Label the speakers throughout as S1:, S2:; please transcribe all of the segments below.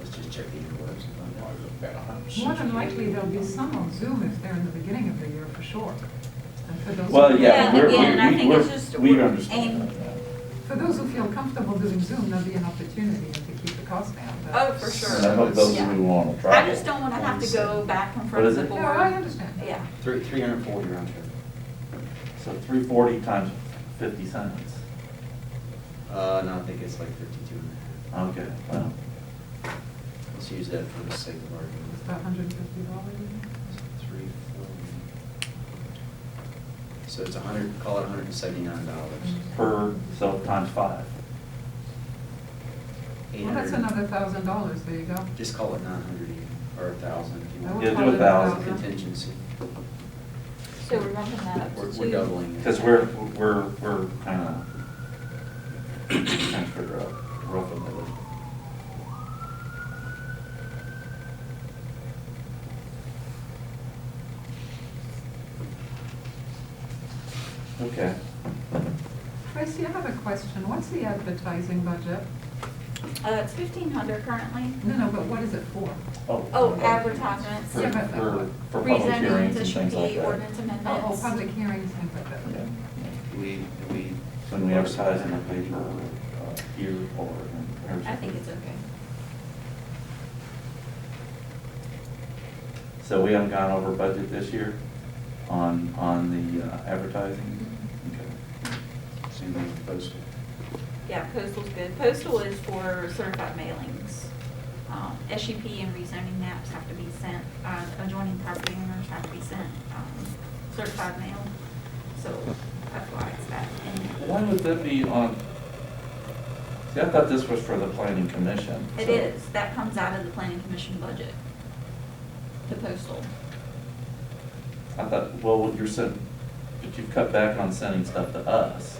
S1: distribute the words.
S2: More than likely, there'll be some on Zoom if they're in the beginning of the year, for sure. And for those-
S3: Well, yeah,
S4: Yeah,
S3: we're, we,
S4: again, I
S3: we-
S4: think it's
S3: we're-
S4: just
S3: we
S4: we're
S3: understand
S4: aim-
S3: that.
S2: For those who feel comfortable doing Zoom, there'll be an opportunity to keep the cost down. but-
S4: Oh, for
S3: And I
S4: sure.
S3: hope those
S4: Yeah.
S3: who want to try.
S4: I just don't want to have to go back in
S3: What
S4: front
S3: is
S4: of the
S3: it?
S4: board.
S2: No, I understand.
S4: Oh, Yeah.
S5: Three, three hundred and forty round trip.
S3: So three forty times fifty cents.
S5: Uh, no, I think it's like fifty-two and a half.
S3: Okay, well,
S5: Let's use that for the sake of
S2: It's
S5: argument.
S2: about hundred and fifty dollars.
S5: Three forty. So it's a hundred, call it hundred and seventy-nine dollars.
S3: per, so times five.
S2: Well, that's another thousand dollars, there you go.
S5: Just call it nine hundred or a thousand if you
S2: I
S5: want.
S2: would
S3: Yeah, do
S2: call
S3: a
S2: it
S3: thousand.
S5: Contingency.
S4: So we're bumping that up
S5: We're-
S4: to
S5: We're
S4: two.
S5: doubling it.
S3: Because we're, we're, we're kind of, trying to figure out roughly. what it- Okay,
S2: Tracy, I have a question. What's the advertising budget?
S4: Uh, it's fifteen hundred currently.
S2: No, no, but what is it for?
S3: oh.
S4: Oh, advertisements.
S3: For,
S2: Yeah, but-
S3: for, for public
S4: Rezoning,
S3: hearings and things
S4: district
S3: like
S4: D,
S3: that.
S4: ordinance
S2: Oh, oh,
S4: amendments.
S2: public hearings, things like that.
S3: Yeah.
S5: Do we, do we?
S3: When we advertise in the paper, uh, here or. in-
S4: I think it's okay.
S3: So we haven't gone over budget this year on, on the uh, advertising? Okay.
S4: Mm-hmm.
S5: Same thing with postal.
S4: Yeah, postal's good. Postal is for certified mailings. Um, SUP and rezoning maps have to be sent, uh, adjoining property owners have to be sent, um, certified mail. So that's why it's that. And
S3: Why would that be on, see, I thought this was for the planning commission.
S4: It
S3: so-
S4: is, that comes out of the planning commission budget, the postal.
S3: I thought, well, you're sent, but you've cut back on sending stuff to us,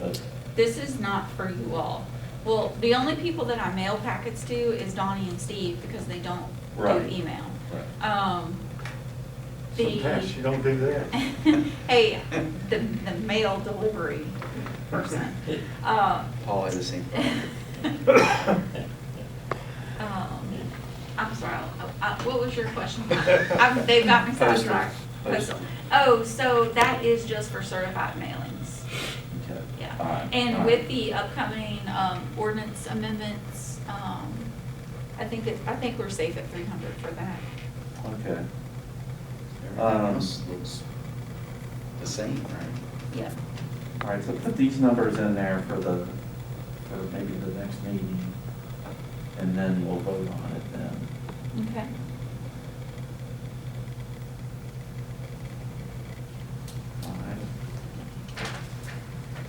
S3: but,
S4: This is not for you all. Well, the only people that I mail packets to is Donnie and Steve because they don't
S3: Right.
S4: do email.
S3: Right.
S4: Um, the.
S6: Sometimes you don't do that.
S4: Hey, the, the mail delivery person. Uh,
S5: Paul had the same problem.
S4: um, I'm sorry, I- I- what was your question? I'm- They've got me
S3: Postal.
S4: sidetracked.
S3: Postal.
S4: Postal. Oh, so that is just for certified mailings.
S3: okay. all
S4: Yeah,
S3: right, all
S4: and
S3: right.
S4: with the upcoming um, ordinance amendments, um, I think it, I think we're safe at three hundred for that.
S3: Okay,
S5: Everything
S3: Um,
S5: else looks the same, right?
S4: Yeah,
S3: all right, so put these numbers in there for the, for maybe the next meeting, and then we'll vote on it then.
S4: okay.
S3: All right.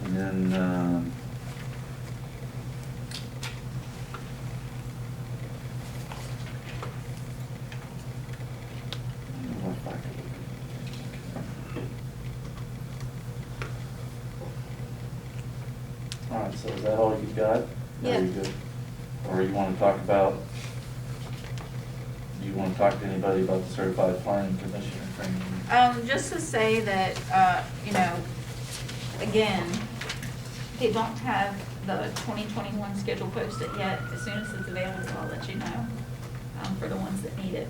S3: And then, um, I don't know if I could- All right, so is that all you've got?
S4: Yeah.
S3: Are you good? Or you want to talk about, do you want to talk to anybody about the certified planning commissioner training?
S4: Um, just to say that, uh, you know, again, they don't have the twenty twenty-one schedule posted yet. As soon as it's available, I'll let you know, um, for the ones that need it.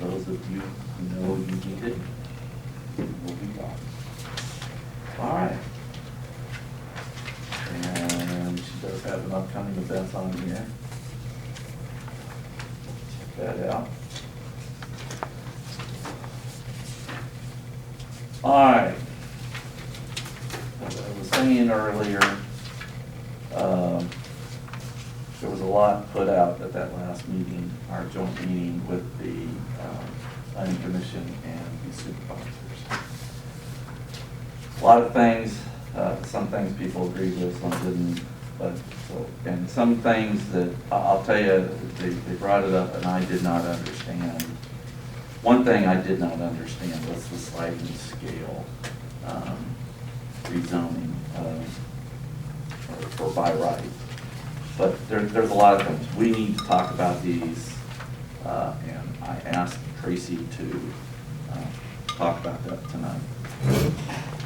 S3: Those of you who know you need it, will be gone. All right. And she does have an upcoming event on here. Check that out. All right. As I was saying earlier, um, there was a lot put out at that last meeting, our joint meeting with the um, planning commission and the supervisors. A lot of things, uh, some things people agreed with, some didn't, but, so- and some things that, I- I'll tell you, they, they brought it up and I did not understand. One thing I did not understand was the sliding scale, um, rezoning, uh, for by right. But there, there's a lot of things. We need to talk about these, uh, and I asked Tracy to, uh, talk about that tonight.